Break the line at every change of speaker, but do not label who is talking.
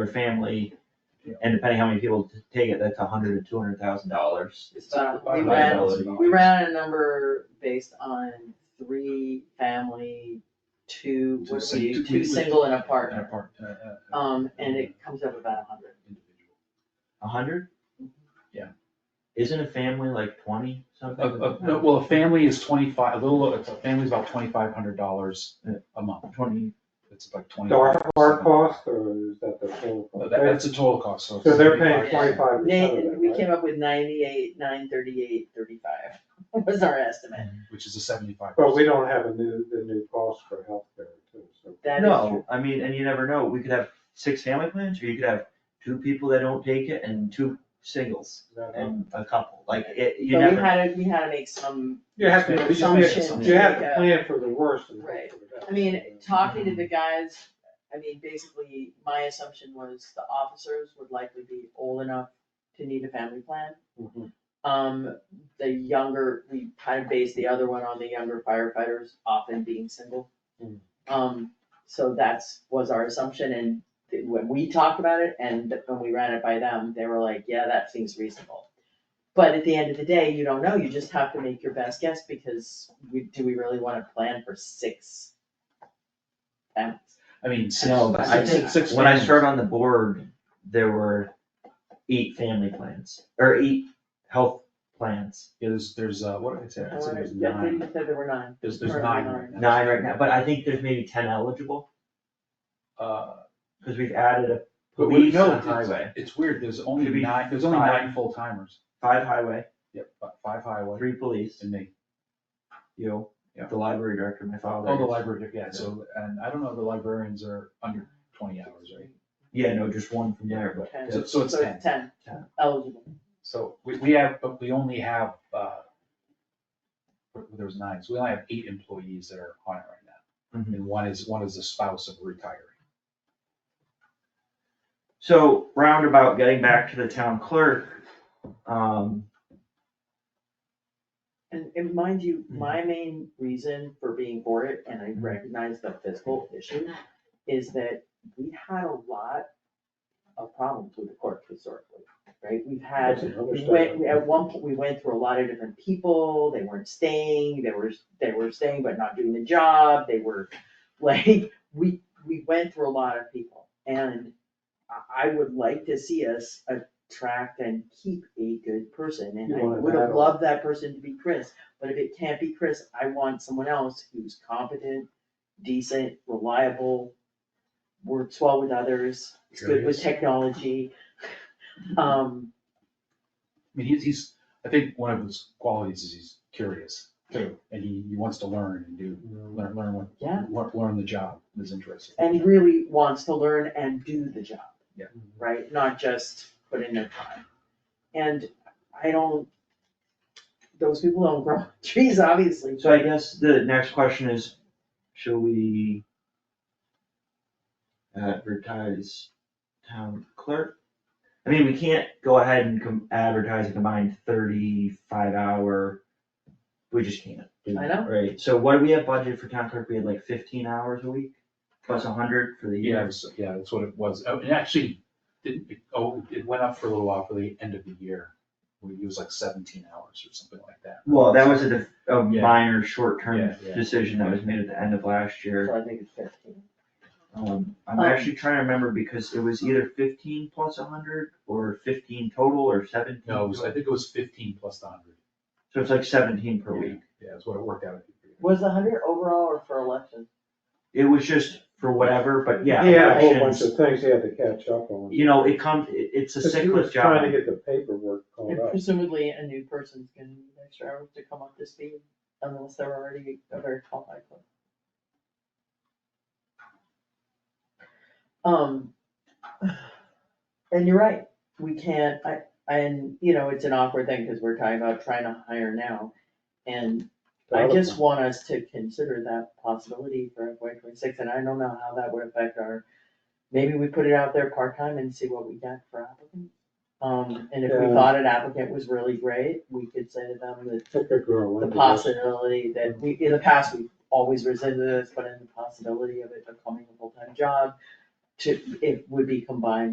per family.
Yeah.
And depending how many people t- take it, that's a hundred to two hundred thousand dollars.
It's, uh, we
By
ran,
liability.
we ran a number based on three family, two,
Two
what are
sing-
we,
two-
two
we-
single and a
An
partner.
apart- uh, uh, uh,
Um, and it comes up about a hundred.
individual.
A hundred?
Yeah.
Isn't a family like twenty
A-
something?
a- no, Uh, well, a family is twenty-five, a little, a family's about twenty-five hundred dollars uh, a month,
Twenty.
it's about twenty.
Our, our cost, or is that the full?
No,
cost?
that- That's the total cost, so.
So they're paying
Yeah.
twenty-five percent of
Nate, we
that,
came up with ninety-eight, nine thirty-eight, thirty-five was our estimate.
Which is a seventy-five.
right? But we don't have a new, the new cost for healthcare too, so.
That is true.
No, I mean, and you never know, we could have six family plans, or you could have two people that don't take it and two singles and a couple, like, it, you
But we
never.
had to, we had to make some
You have to, you just have-
Assumptions,
you have to
yeah.
plan for the worst and hope
Right.
for the best.
I mean, talking to the guys, I mean, basically, my assumption was the officers would likely be old enough to need a family plan.
Mhm.
Um, the younger, we kind of based the other one on the younger firefighters often being single.
Hmm.
Um, so that's, was our assumption, and th- when we talked about it, and th- when we ran it by them, they were like, yeah, that seems reasonable. But at the end of the day, you don't know, you just have to make your best guess, because we, do we really wanna plan for six? families?
I mean, six,
No, but I
six-
think,
six
when I
families.
started on the board, there were eight family plans, or eight health plans,
Yeah, There's, there's, uh, what did I say,
I
I said
wonder-
there's
yeah, I think
nine,
you said there were nine.
there's, there's
Or
nine
nine.
right now.
nine right now, but I think there's maybe ten eligible,
Uh,
cause we've added a
But we
police
know,
and a
it's,
highway,
it's weird, there's
Should
only
be
nine, there's only
five.
nine full timers,
five highway,
yep, fi- five highway
three police,
and me.
you know,
Yeah.
the library director, my father.
Oh, the
is-
library, yeah, so, and I don't know, the librarians are under twenty hours, right?
Yeah, no, just one from there, but.
Ten.
So, so it's
So
ten,
it's ten
Ten.
eligible.
so we, we have, but we only have, uh, there was nine, so we only have eight employees that are on it right now.
Mhm.
And one is, one is the spouse of a retiree.
So roundabout, getting back to the town clerk, um,
And, and mind you, my main reason for being for it, and I recognize the fiscal issue, is that we had a lot of problems with the court historically, right? We've had
That's another
We
side
went,
of
we-
it.
at one point, we went through a lot of different people, they weren't staying, they were, they were staying but not doing the job, they were, like, we, we went through a lot of people. And I, I would like to see us attract and keep a good person, and
You
I
want an
would have
adult.
loved that person to be Chris. But if it can't be Chris, I want someone else who's competent, decent, reliable, works well with others, is good with
Curious.
technology. Um,
I mean, he's, he's, I think one of his qualities is he's curious too, and he, he wants to learn and do, learn, learn what,
Yeah.
learn, learn the job, is interesting.
and really wants to learn and do the job,
Mhm.
right? Not just put in their time. And I don't, those people don't grow trees, obviously.
so I guess the next question is, shall we uh, advertise town clerk? I mean, we can't go ahead and com- advertise a combined thirty-five hour, we just can't. do
I
that,
know.
Right, so what do we have budget for town clerk? We had like fifteen hours a week, plus a hundred for the
Yeah,
year.
so- yeah, that's what it was. Oh, It actually didn't, oh, it went up for a little while for the end of the year. We- It was like seventeen hours or something like that.
Well, that was a, def- a
Yeah.
minor short-term
Yeah, yeah.
decision that was made at the end of last year.
So I think it's fifteen.
Um, I'm
Um,
actually trying to remember because it was either fifteen plus a hundred or fifteen total or seventeen.
No, it was, I
total.
think it was fifteen plus the hundred.
So it's like seventeen per week.
Yeah, that's what it worked out. to be.
Was the hundred overall or for election?
It was just for whatever, but yeah.
He had a whole bunch
elections,
of things he had to catch up on.
You know, it comes, it, it's a
Because he was
sickless job.
Trying to get the paperwork called
And
up.
presumably a new person's gonna need extra hours to come up to speed unless they're already a very qualified clerk. Um, and you're right, we can't, I, and, you know, it's an awkward thing, cause we're talking about trying to hire now. And I just want us to consider that possibility for FY twenty-six, and I don't know how that would affect our, maybe we put it out there part-time and see what we get for applicants. Um, and if we
Yeah.
thought an applicant was really great, we could say to them that
Took a girl.
the
into this.
possibility that we, in the past, we've always resented this, but in the possibility of it becoming a full-time job, to, it would be combined